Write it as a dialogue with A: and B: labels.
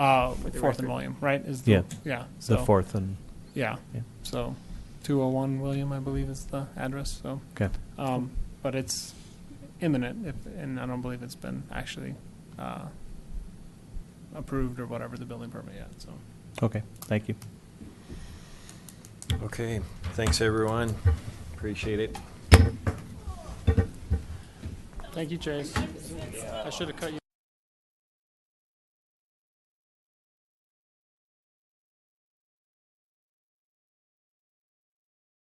A: Uh,
B: the
A: Fourth
B: record.
A: and William, right? Is
C: Yeah.
A: yeah.
C: The
A: So
C: fourth and,
A: Yeah.
C: Yeah.
A: So, two hundred one William, I believe, is the address. So,
C: okay.
A: um, but it's imminent, if, and I don't believe it's been actually uh, approved or whatever the building permit yet. So.
C: Okay, thank you.
D: Okay, thanks, everyone. Appreciate it.
A: Thank you, Chase. I should have cut you.